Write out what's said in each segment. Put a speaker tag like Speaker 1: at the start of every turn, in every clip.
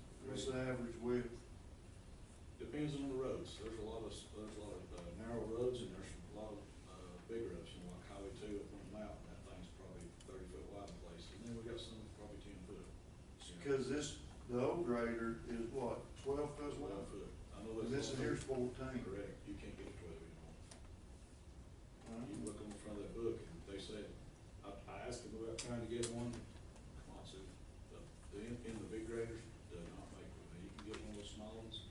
Speaker 1: uh,
Speaker 2: The old grader is what, twelve foot long?
Speaker 1: Twelve foot. I know that's.
Speaker 2: And this
Speaker 1: not-
Speaker 2: one here's fourteen.
Speaker 1: Correct, you can't get twelve anymore.
Speaker 2: Uh,
Speaker 1: You look on the front of that book, and they said, I, I asked them about trying to get one, come on, Sue, the, the, in in the big graders, do not make, it. Now, you can get one of those small ones.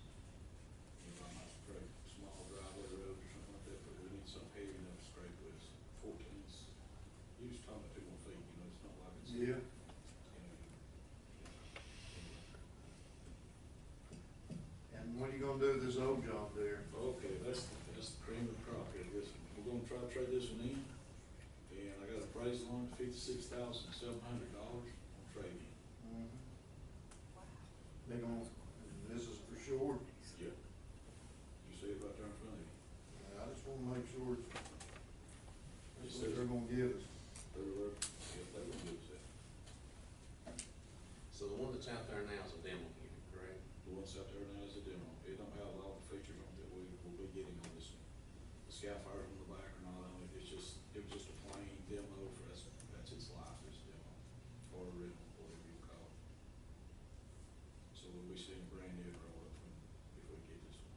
Speaker 1: You know, I might scrape small driveway road or something like that, but we need something heavy enough to scrape with, fourteens. You just talking about two more feet, you know, it's not like it's. you know,
Speaker 2: Yeah,
Speaker 1: you-
Speaker 2: and what are you gonna do with this old job there?
Speaker 1: Okay, that's, that's the cream of the crop here, this, we're gonna try to trade this one in, and I got a price on it, fifty-six thousand seven hundred dollars on trade-in.
Speaker 2: Mhm. They gonna, this is for sure,
Speaker 1: Yep. You see it right there in front of you,
Speaker 2: I just wanna make sure it's,
Speaker 1: Yes,
Speaker 2: that's what
Speaker 1: sir.
Speaker 2: they're gonna give us.
Speaker 1: they're, they're, yeah, they're gonna give us that,
Speaker 3: So the one that's out there now is a demo unit, correct?
Speaker 1: the ones out there now is a demo, it don't have a lot of features on it that we will be getting on this one. The Skyfire's on the back or not on it, it's just, it was just a plain demo for us, that's its life, it's a demo, or a rental, whatever you call it. So we'll be seeing a brand new roll up when, if we get this one.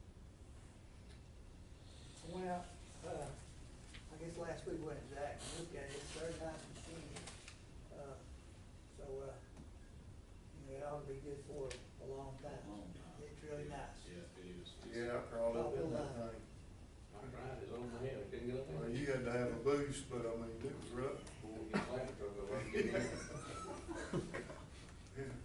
Speaker 4: I went out, uh, I guess last week went to Jack and looked at it, it's third time I've seen it. Uh, so, uh, you know, it ought to be good for a long time.
Speaker 1: Long time.
Speaker 4: Uh, It's really nice.
Speaker 1: Yeah, it is. It's-
Speaker 2: Yeah, I crawled up in that thing.
Speaker 3: I tried, it's on my head, I couldn't get up
Speaker 2: Well,
Speaker 3: there.
Speaker 2: you had to have a boost, but I mean, it was rough.
Speaker 3: Couldn't get back, I go up and get in.
Speaker 2: Yeah.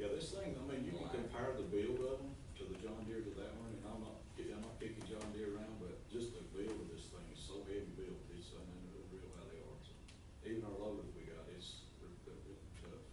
Speaker 1: Yeah, this thing, I mean, you can compare the build of them to the John Deere to that one, and I'm not, I'm not kicking John Deere around, but just the build of this thing is so heavy built, it's, I mean, they're real how they are. So Even our loader that we got, it's, they're, they're real tough.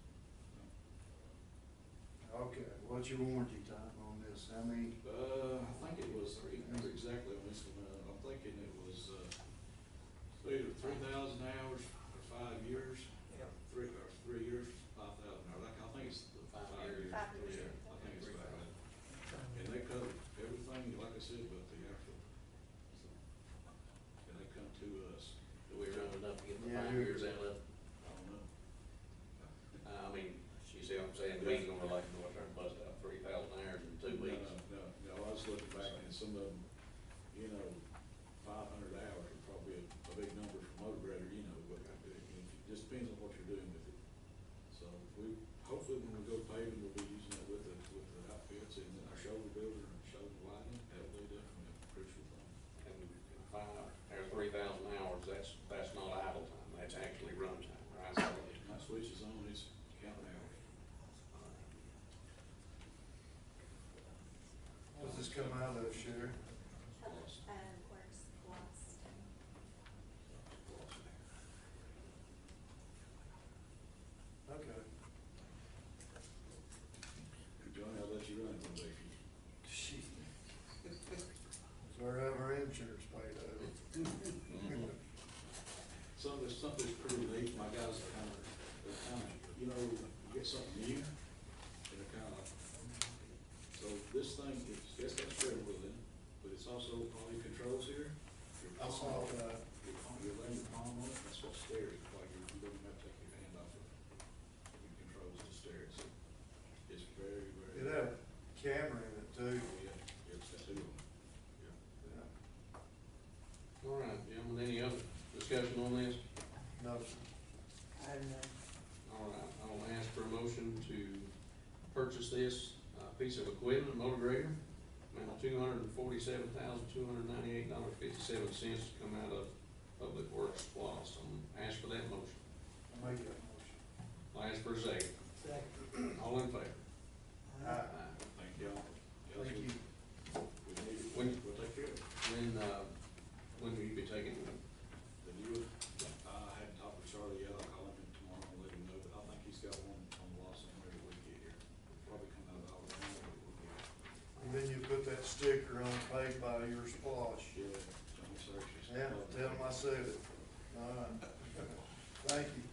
Speaker 2: Okay, what's your warranty time on this? How many,
Speaker 1: Uh, I think it was, I can't remember exactly on this one, uh, I'm thinking it was, uh, either three thousand hours or five years,
Speaker 4: Yep.
Speaker 1: three, or three years, five thousand hours, I think it's the
Speaker 3: Five
Speaker 1: five
Speaker 3: years.
Speaker 1: years.
Speaker 5: Five years.
Speaker 1: Yeah, I think it's about right. And they covered everything, like I said, but the actual. so. And they come to us,
Speaker 3: Do we run enough to get the
Speaker 2: Yeah,
Speaker 3: five
Speaker 2: you're-
Speaker 3: years out of, it?
Speaker 1: I don't know.
Speaker 3: Uh, I mean, you see what I'm saying, we ain't gonna like go out there and bust out three thousand hours in two
Speaker 1: No,
Speaker 3: weeks.
Speaker 1: No, no, I was looking back and some of them, you know, five hundred hours are probably a, a big number for motor grader, you know, but it it just depends on what you're doing with it. So we, hopefully when we go paving, we'll be using it with the, with the outfits and our shoulder builder and shoulder lighting, that'll be definitely a crucial thing.
Speaker 3: And and five, or three thousand hours, that's, that's not idle time, that's actually run time, right? So
Speaker 1: My switch is on, it's counting hours.
Speaker 2: does this come out of, Sherry?
Speaker 1: Lost,
Speaker 5: Um, works lost.
Speaker 1: lost.
Speaker 2: Okay.
Speaker 1: Johnny, I'll let you run it one day.
Speaker 2: Shit. So our other insurance paid out.
Speaker 1: Some of this stuff is pretty neat, my guys are kind of, they're kind of, you know, you get something new, they're kind of, so this thing, it's, it's got steering wheel in it, but it's also all your controls here. Your
Speaker 2: I
Speaker 1: palm-
Speaker 2: saw uh, that.
Speaker 1: Your palm, your laying your palm on it, that's what steers, like you you don't have to take your hand off it. It controls the steering, so it's very, very.
Speaker 2: It had a camera in it too.
Speaker 1: Oh, yeah, yeah, it's got two of them, yeah.
Speaker 2: Yeah.
Speaker 3: All right, gentlemen, any other discussion on this?
Speaker 2: No,
Speaker 4: And, uh,
Speaker 3: All right, I'll ask for a motion to purchase this, uh, piece of equipment, motor grader, amount two hundred and forty-seven thousand, two hundred and ninety-eight dollars, fifty-seven cents to come out of Public Works Plus. I'm gonna ask for that motion.
Speaker 2: I make that motion.
Speaker 3: I'll ask for a second.
Speaker 4: second,
Speaker 3: All in favor?
Speaker 2: Aye.
Speaker 3: Aye.
Speaker 1: Thank y'all. Yes,
Speaker 2: Thank
Speaker 1: we-
Speaker 2: you.
Speaker 1: We need it,
Speaker 3: When-
Speaker 1: we'll take care of it.
Speaker 3: When, uh, when will you be taking them?
Speaker 1: The new, I hadn't talked with Charlie yet, I'll call him tomorrow and let him know, but I think he's got one on the lot somewhere that we can get here. Probably come out of our land, but we'll get it.
Speaker 2: And then you put that sticker on paid by your splosh.
Speaker 1: Yeah, Johnny Search is.
Speaker 2: Yeah, tell them I said it. All right. Thank you.